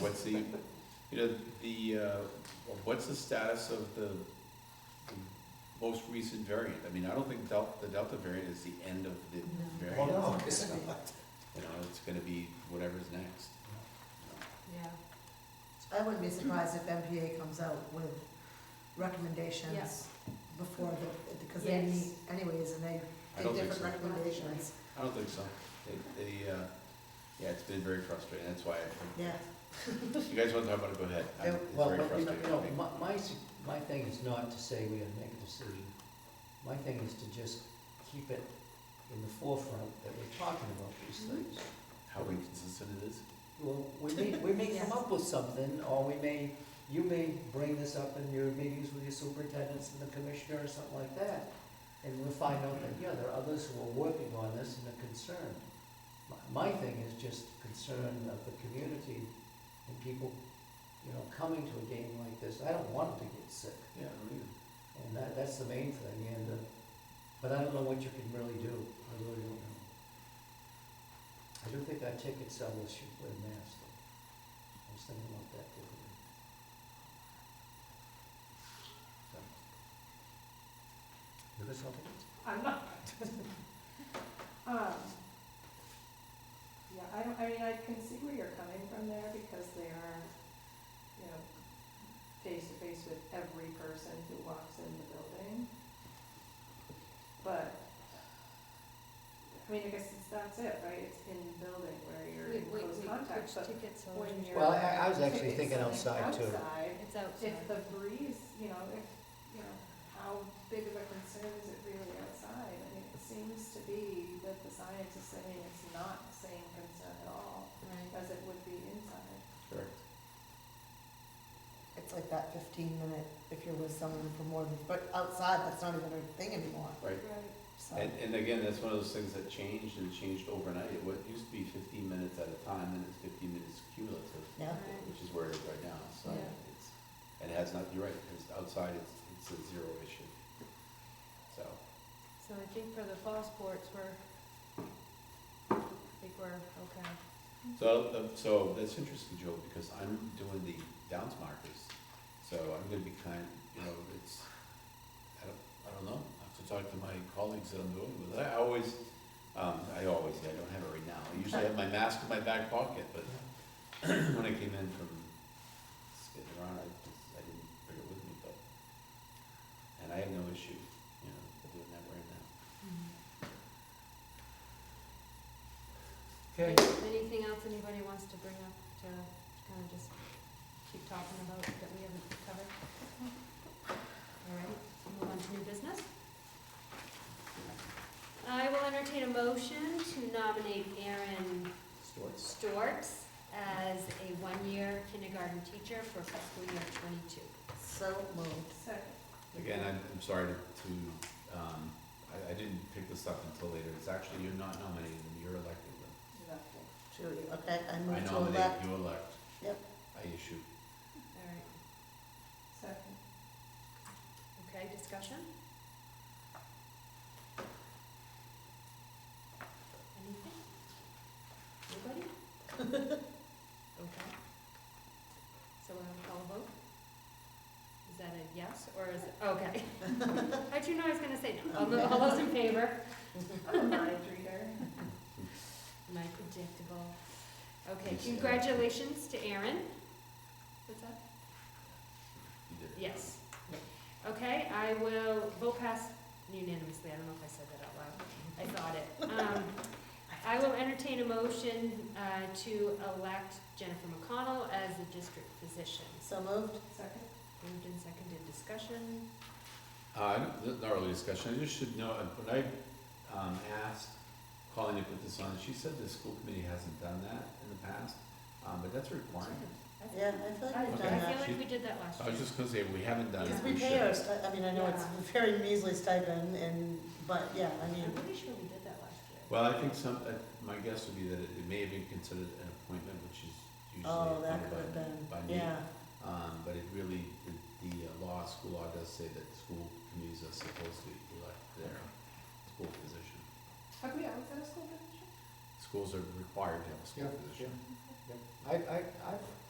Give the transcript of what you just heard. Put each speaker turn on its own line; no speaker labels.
what's the, you know, the, uh, what's the status of the the most recent variant? I mean, I don't think Delta, the Delta variant is the end of the
No.
variant.
Well, no,
Right.
it's not.
You know, it's gonna be whatever's next.
Yeah,
I wouldn't be surprised if MPA comes out with recommendations
yes,
before the, because they
Yes.
meet anyways, and they,
I
they
don't think
different
so.
recommendations.
I don't think so. They, they, uh, yeah, it's been very frustrating, that's why, I-
Yeah,
you guys wanna talk about it, go ahead. I-
Yeah.
It's
Well,
very
but, you know,
frustrating.
you know, my, my, s- my thing is not to say we gotta make a decision. My thing is to just keep it in the forefront that we're talking about these
Mhm.
things.
How inconsistent it is.
Well, we may, we may come up with something, or we may, you may bring this up in your meetings with your superintendents and the commissioner or something like that. And we'll find out that, yeah, there are others who are working on this and are concerned. My, my thing is just concern of the community and people, you know, coming to a game like this. I don't want them to get sick.
Yeah, I don't either.
And that, that's the main thing, and, uh, but I don't know what you can really do, I really don't know. I do think our ticket sellers should wear masks, though. I was thinking about that the other day. So. You got something?
I'm not. Um, Yeah, I don't, I mean, I can see where you're coming from there because they are, you know, face to face with every person who walks in the building. But, I mean, I guess it's, that's it, right? It's in the building where you're in
wait, wait,
close
wait,
contact,
which
but
tickets are?
when you're.
Well, I, I was actually
tickets
thinking
selling
outside too.
Outside,
It's outside.
if the breeze, you know, if, you know, how big of a concern is it really outside? I mean, it seems to be that the science is saying it's not the same concern at all
Right,
as it would be inside.
Correct.
it's like that fifteen minute, if you're with someone for more than, but outside, that's not even a thing anymore,
Right.
Right.
so.
And, and again, that's one of those things that changed and changed overnight. It wa- used to be fifteen minutes at a time, and it's fifteen minutes cumulative,
Yeah,
right.
which is where it is right now, so
Yeah.
it's, and it has not, you're right, it's outside, it's, it's a zero issue. So,
So I think for the fall sports, we're, I think we're okay.
so, the- so that's interesting, Joel, because I'm doing the downs markers, so I'm gonna be kind, you know, it's, I don't, I don't know. I have to talk to my colleagues that I'm doing it with. I always, um, I always, I don't have it right now. I usually have my mask in my back pocket, but when I came in from skating around, I, just- I didn't bring it with me, but, and I have no issue, you know, doing that right now.
Okay.
Anything else anybody wants to bring up to kind of just keep talking about that we haven't covered? All right, let's move on to new business. I will entertain a motion to nominate Aaron
Stores.
Storks as a one-year kindergarten teacher for fiscal year twenty-two.
so moved.
Second,
Again, I'm, I'm sorry to, to, um, I, I didn't pick this up until later. It's actually, you're not nominating them, you're electing them.
exactly.
Julie, okay, I
I
move to
nominate,
elect,
you elect.
Yep.
I issue.
All right,
Second.
Okay, discussion? Anything? Anybody? Okay. So we'll have a call vote? Is that a yes, or is it, okay. I do know I was gonna say no. All tho- All those in favor?
I'm a mind reader.
My predictable. Okay,
Yes, Erin.
congratulations to Aaron. What's that?
You did. it.
Yes. Okay, I will vote pass unanimously, I don't know if I said that out loud, I thought it. Um, I will entertain a motion uh, to elect Jennifer McConnell as the district physician.
so moved,
Second,
Moved and seconded discussion,
Uh, n- not really discussion, I just should know, uh, when I, um, asked Colleen to put this on, she said the school committee hasn't done that in the past, um, but that's a requirement.
I
yeah,
feel-
I
I
feel like we've done
I feel
that.
like we did that last
I was
year.
just gonna say, we haven't done it,
Because
we
we
should.
pay our, sti- I mean, I know it's
Yeah.
a very measly stipend and, but, yeah, I mean,
I'm pretty sure we did that last year.
Well, I think some, uh, my guess would be that it it may have been considered an appointment, which is usually
oh, that
appointed
could have
by- by me.
been, yeah,
Um, but it really, the, the uh, law, school law does say that school committees are supposed to elect their school physician.
have we always had a school district?
Schools are required to have a school
Mm-hmm.
Yeah,
physician.
I, I, I've